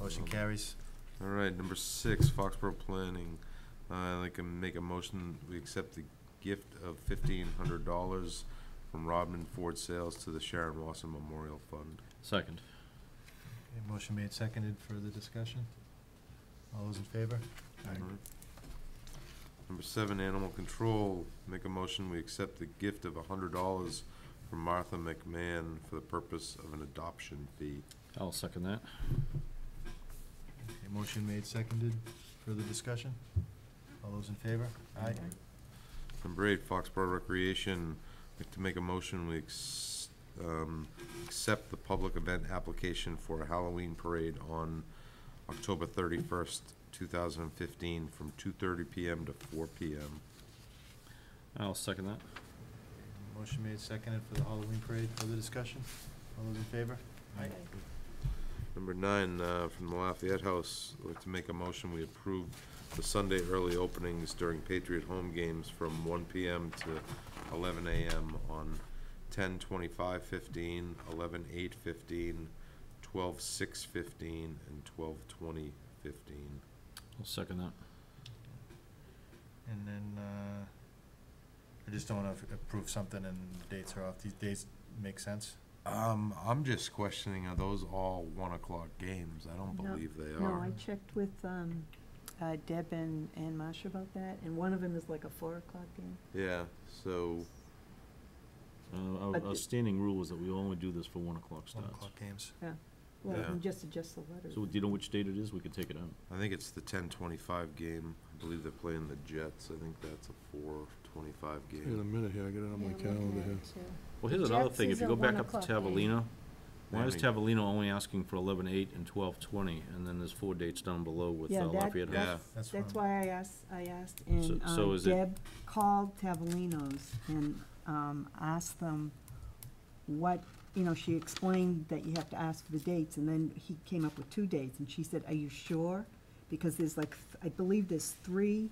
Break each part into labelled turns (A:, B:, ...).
A: Motion carries.
B: All right, number six, Foxborough Planning. Uh, I'd like to make a motion, we accept the gift of fifteen hundred dollars from Rodman Ford Sales to the Sharon Lawson Memorial Fund.
C: Second.
A: Okay, Motion made, seconded, further discussion? All those in favor?
B: Alright. Number seven, Animal Control. Make a motion, we accept the gift of hundred dollars from Martha McMahon for the purpose of an adoption fee.
C: I'll second that.
A: Okay, Motion made, seconded, further discussion? All those in favor? Aye.
B: Number eight, Foxborough Recreation, I'd like to make a motion, we ex- um, accept the public event application for a Halloween parade on October thirty-first, two thousand and fifteen, from two thirty PM to four PM.
C: I'll second that.
A: Motion made, seconded for the Halloween parade, further discussion? All those in favor? Aye.
B: Number nine, uh, from the Lafayette House, I'd like to make a motion, we approve the Sunday early openings during Patriot home games from one PM to eleven AM on ten twenty-five fifteen, eleven eight fifteen, twelve six fifteen, and twelve twenty fifteen.
C: I'll second that.
A: And then, uh, I just don't wanna f- approve something and dates are off, these dates make sense?
B: Um, I'm just questioning, are those all one o'clock games? I don't
D: No,
B: believe they
D: No, I
B: are.
D: checked with um, uh, Deb and, and Masha about that, and one of them is like a four o'clock game.
B: Yeah, so,
C: Uh, our-
D: But
C: Our
D: the-
C: standing rule is that we only do this for one o'clock
A: One
C: starts.
A: o'clock games.
D: Well, you
B: Yeah.
D: can just adjust the letters.
C: So do you know which date it is? We could take it out.
B: I think it's the ten twenty-five game. I believe they're playing the Jets. I think that's a four twenty-five game.
E: In a minute here, I got it on my calendar here.
C: Well, here's another
D: Jets
C: thing.
D: is
C: If you go
D: at
C: back
D: 1
C: up to
D: o'clock, eh? right?
C: Tavelina, why is
B: Maybe.
C: Tavelina only asking for eleven eight and twelve twenty? And then there's four dates down below with
D: Yeah,
C: uh,
D: that-
C: Lafayette House.
B: Yeah.
D: that's-
A: That's
D: That's
A: fine.
D: why I asked, I asked,
C: So-
D: and
C: so
D: um,
C: is it-
D: Deb called Tavelino's and um, asked them what, you know, she explained that you have to ask for the dates, and then he came up with two dates, and she said, are you sure? Because there's like, th- I believe there's three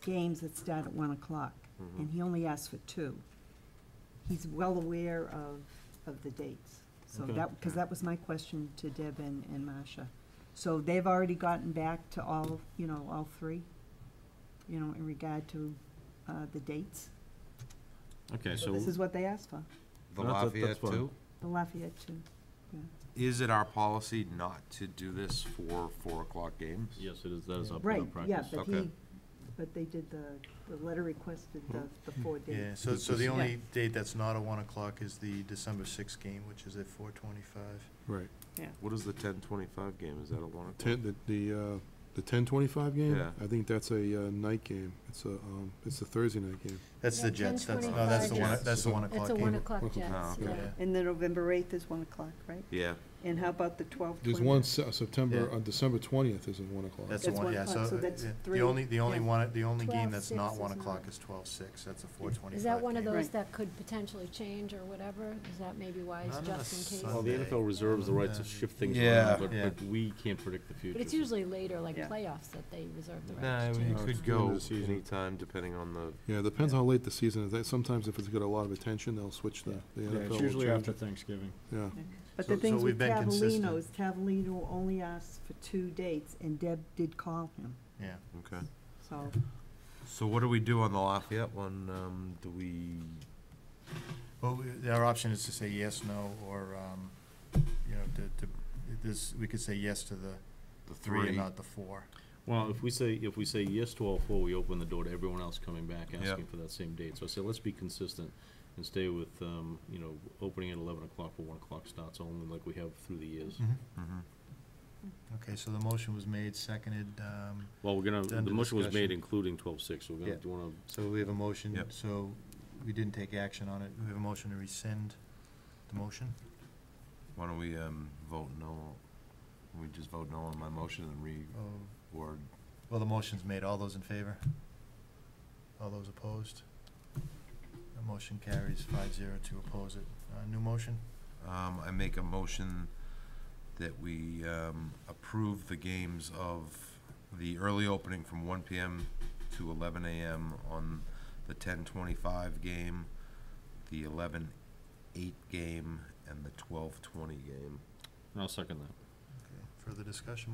D: games that start at one o'clock, and
B: Mm-hmm.
D: he only asked for two. He's well aware of, of the dates, so
C: Okay.
D: that, because that was my question to Deb and, and Masha. So they've already gotten back to all, you know, all three, you know, in regard to, uh, the dates.
C: Okay,
D: So
C: so,
D: this is what they asked for,
B: The
C: That's- that's
B: Lafayette
C: fine.
B: too?
D: the Lafayette too.
B: Is it our policy not to do this for four o'clock games?
C: yes, it is. That is our
D: Right,
C: current
D: yeah,
C: practice.
D: but
B: Okay.
D: he, but they did the, the letter requested the, the four dates.
A: Yeah, so, so the
D: Yeah.
A: only date that's not a one o'clock is the December sixth game, which is at four twenty-five.
E: Right.
B: What is the ten twenty-five game? Is that a one o'clock?
E: Ten, the, the, uh, the ten twenty-five game?
B: Yeah.
E: I think that's a, uh, night game. It's a, um, it's a Thursday night game.
A: That's the
F: Yeah,
A: Jets, that's, no,
B: 10:25
A: that's the one,
B: Jets.
A: that's the one o'clock
F: It's a
A: game.
F: one o'clock
E: Okay.
F: Jets,
B: Oh,
F: yeah.
B: okay.
A: Yeah.
D: And then November eighth is one o'clock, right?
B: Yeah,
D: And how about the twelve?
E: There's one Se- September,
A: Yeah.
E: uh, December twentieth is at one o'clock.
A: That's the
D: That's
A: one,
D: one
A: yeah,
D: o'clock,
A: so,
D: so that's
A: yeah, the
D: three,
A: only, the only
D: yeah.
A: one, the only game that's
F: 12-6
A: not
F: is
A: one
F: not-
A: o'clock is twelve-six, that's a four twenty-five game.
F: Is that one of those
D: Right.
F: that could potentially change or whatever? Is that maybe why it's
A: Not on a
F: just in
A: Sunday.
C: Well,
F: case?
C: the NFL reserves the right
A: Yeah.
C: to shift things
B: Yeah.
C: around, but,
A: Yeah.
C: but we can't predict the future.
F: But it's
C: so-
F: usually later, like
D: Yeah.
F: playoffs, that they reserve the
B: Nah,
F: right to
B: it could
F: change.
E: Uh, the end of
B: go
E: the season.
B: anytime depending on the,
E: Yeah, it depends how late the season is. That- Sometimes if it's got a lot of attention, they'll switch the, the
C: Yeah,
E: NFL.
C: it's
E: will
C: usually
E: change
C: after
E: it.
C: Thanksgiving.
E: Yeah.
D: But
A: So-
D: the
A: so
D: things
A: we've
D: with
A: been
D: Tavolino
A: consistent.
D: is Tavolino only asked for two dates, and Deb did call him,
A: Yeah,
B: okay.
D: so.
B: So what do we do on the Lafayette one? Um, do we,
A: well, we- our option is to say yes, no, or, um, you know, to, to, this, we could say yes to the
B: the
A: three and
B: three?
A: not the four.
C: Well, if we say, if we say yes to all four, we open the door to everyone else coming back
B: Yeah.
C: asking for that same date. So I say, let's be consistent and stay with, um, you know, opening at eleven o'clock for one o'clock starts only like we have through the years.
B: Mhm.
A: Okay, so the motion was made, seconded, um,
C: Well, we're gonna,
A: Then
C: the
A: the
C: motion was made
A: discussion.
C: including twelve six, so we're gonna,
B: Yeah.
C: do you wanna,
A: so we have a motion,
B: Yep.
A: so we didn't take action on it, we have a motion to rescind the motion?
B: Why don't we, um, vote no? We just vote no on my motion and re,
A: Oh,
B: or,
A: Well, the motion's made. All those in favor? All those opposed? The motion carries five zero to oppose it. Uh, new motion?
B: um, I make a motion that we, um, approve the games of the early opening from one PM to eleven AM on the ten twenty-five game, the eleven eight game, and the twelve twenty game.
C: I'll second that.
A: Okay. Further discussion,